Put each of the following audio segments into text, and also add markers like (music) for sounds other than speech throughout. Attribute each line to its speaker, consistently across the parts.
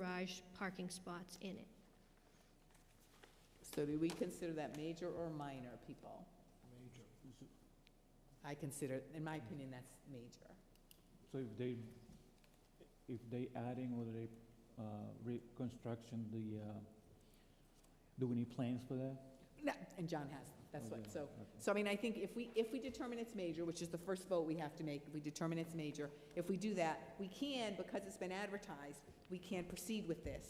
Speaker 1: garage parking spots in it.
Speaker 2: So do we consider that major or minor, people?
Speaker 3: Major.
Speaker 2: I consider, in my opinion, that's major.
Speaker 3: So if they, if they adding or they, uh, reconstruction, the, uh, do we need plans for that?
Speaker 2: No, And John has, them. that's what,
Speaker 3: Okay,
Speaker 2: so,
Speaker 3: okay.
Speaker 2: so I mean, I think if we, if we determine it's major, which is the first vote we have to make, if we determine it's major, if we do that, we can, because it's been advertised, we can proceed with this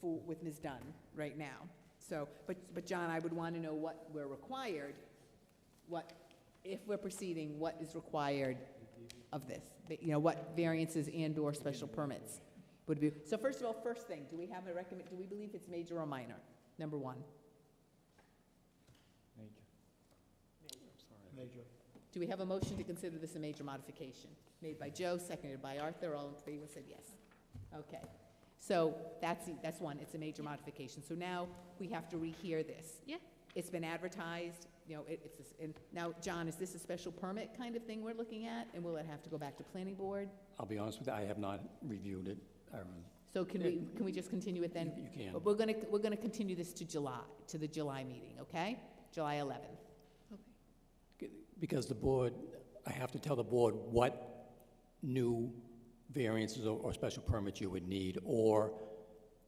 Speaker 2: for, with Ms. Dunn right now. So, but, but John, I would want to know what we're required, what, if we're proceeding, what is required of this? That, You know, what variances and/or special permits would be, so first of all, first thing, do we have a recommend, do we believe it's major or minor? Number one.
Speaker 3: Major.
Speaker 4: Major.
Speaker 2: Do we have a motion to consider this a major modification? Made by Joe, seconded by Arthur, all in favor said yes. Okay, so that's, that's one, it's a major modification. So now we have to rehear this.
Speaker 1: Yeah.
Speaker 2: It's been advertised, you know, it- it's, and now, John, is this a special permit kind of thing we're looking at? And will it have to go back to planning board?
Speaker 5: I'll be honest with you, I have not reviewed it. Um,
Speaker 2: So can we, can we just continue it then?
Speaker 5: You can.
Speaker 2: But We're gonna, we're gonna continue this to July, to the July meeting, okay? July 11th.
Speaker 5: Because the board, I have to tell the board what new variances or or special permits you would need, or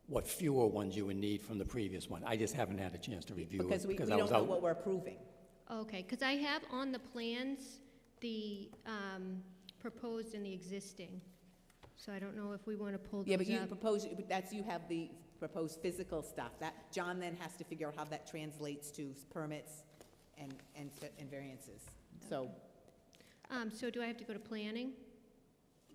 Speaker 5: what fewer ones you would need from the previous one. I just haven't had a chance to review
Speaker 2: Because
Speaker 5: it,
Speaker 2: we, we
Speaker 5: because I was
Speaker 2: don't know
Speaker 5: out.
Speaker 2: what we're approving.
Speaker 1: Okay, because I have on the plans the um, proposed and the existing, so I don't know if we want to pull
Speaker 2: Yeah, but
Speaker 1: those
Speaker 2: you
Speaker 1: up.
Speaker 2: propose, but that's, you have the proposed physical stuff, that, John then has to figure out how that translates to permits and, and, s- and variances. So,
Speaker 1: Um, So do I have to go to planning?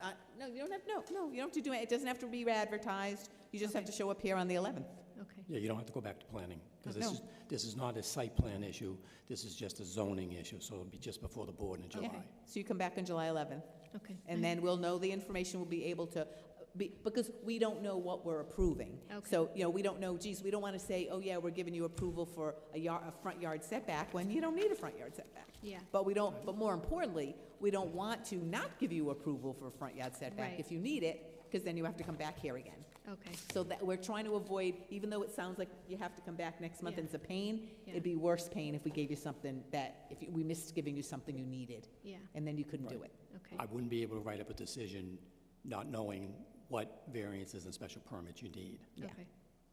Speaker 2: uh, no, you don't have, no, no, you don't have to do it, it doesn't have to be advertised, you just have to show up here on the eleventh.
Speaker 1: Okay,
Speaker 5: Yeah, you don't have to go back to planning, because this
Speaker 2: Oh, No.
Speaker 5: is, this is not a site plan issue, this is just a zoning issue, so it'll be just before the board in July.
Speaker 2: So you come back on July eleventh,
Speaker 1: okay.
Speaker 2: and then we'll know the information, we'll be able to, be- because we don't know what we're approving.
Speaker 1: Okay.
Speaker 2: So, you know, we don't know, geez, we don't wanna say, oh yeah, we're giving you approval for a yard, a front yard setback, when you don't need a front yard setback.
Speaker 1: Yeah,
Speaker 2: But we don't, but more importantly, we don't want to not give you approval for a front yard setback
Speaker 1: Right.
Speaker 2: if you need it, because then you have to come back here again.
Speaker 1: okay,
Speaker 2: So that, we're trying to avoid, even though it sounds like you have to come back next month and it's a pain,
Speaker 1: Yeah.
Speaker 2: it'd be worse pain if we gave you something that, if you- we missed giving you something you needed,
Speaker 1: yeah,
Speaker 2: and then you couldn't do it.
Speaker 1: okay,
Speaker 5: I wouldn't be able to write up a decision not knowing what variances and special permits you need.
Speaker 1: okay.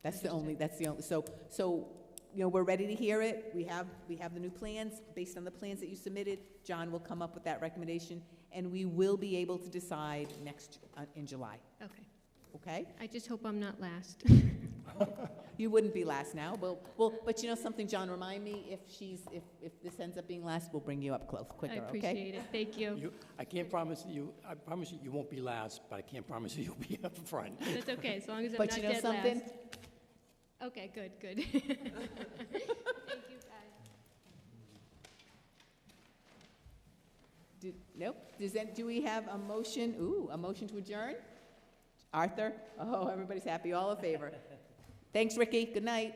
Speaker 2: That's the only, that's the only, so, so, you know, we're ready to hear it, we have, we have the new plans, based on the plans that you submitted, John will come up with that recommendation, and we will be able to decide next, uh, in July,
Speaker 1: Okay,
Speaker 2: okay?
Speaker 1: I just hope I'm not last.
Speaker 2: You wouldn't be last now, well, well, but you know something, John, remind me if she's, if, if this ends up being last, we'll bring you up close,
Speaker 1: (laughs) I
Speaker 2: quicker, okay?
Speaker 1: appreciate it, thank you.
Speaker 5: You, I can't promise that you, I promise you, you won't be last, but I can't promise (laughs) you you'll be up
Speaker 1: (laughs)
Speaker 5: front.
Speaker 1: That's okay, as long as I'm not
Speaker 2: But you know
Speaker 1: dead
Speaker 2: something?
Speaker 1: last. Okay, good, good. (laughs) Thank you, guys.
Speaker 2: Do- Nope, does that, do we have a motion, ooh, a motion to adjourn? Arthur? Oh, everybody's happy, all in favor. Thanks, Ricky, good night.